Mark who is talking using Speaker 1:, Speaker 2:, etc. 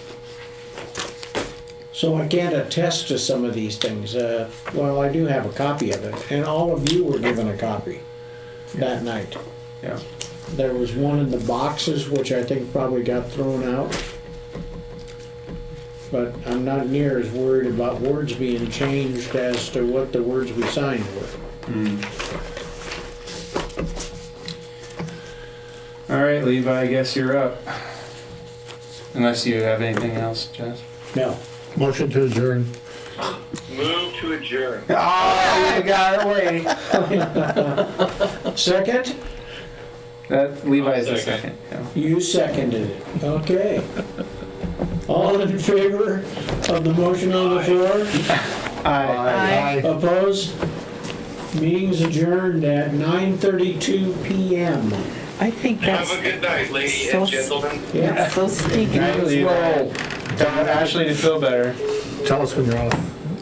Speaker 1: So I can't attest to some of these things. Uh, Well, I do have a copy of it, and all of you were given a copy that night.
Speaker 2: Yeah.
Speaker 1: There was one in the boxes, which I think probably got thrown out. But I'm not near as worried about words being changed as to what the words we signed were.
Speaker 2: All right, Levi, I guess you're up. Unless you have anything else, Jess.
Speaker 1: No.
Speaker 3: Motion to adjourn.
Speaker 4: Move to adjourn.
Speaker 2: Oh, you got away.
Speaker 1: Second?
Speaker 2: That Levi's the second.
Speaker 4: Second.
Speaker 2: yeah.
Speaker 1: You seconded it. Okay. All in favor of the motion on the floor?
Speaker 2: Aye.
Speaker 3: Aye.
Speaker 1: Opposed? Meeting's adjourned at 9:32 PM.
Speaker 5: I think
Speaker 4: Have
Speaker 5: that's
Speaker 4: a good night, ladies and
Speaker 5: so-
Speaker 4: gentlemen.
Speaker 1: Yeah.
Speaker 5: that's so sneaky.
Speaker 2: Night, Levi. Tell Ashley to feel better.
Speaker 3: Tell us when you're off.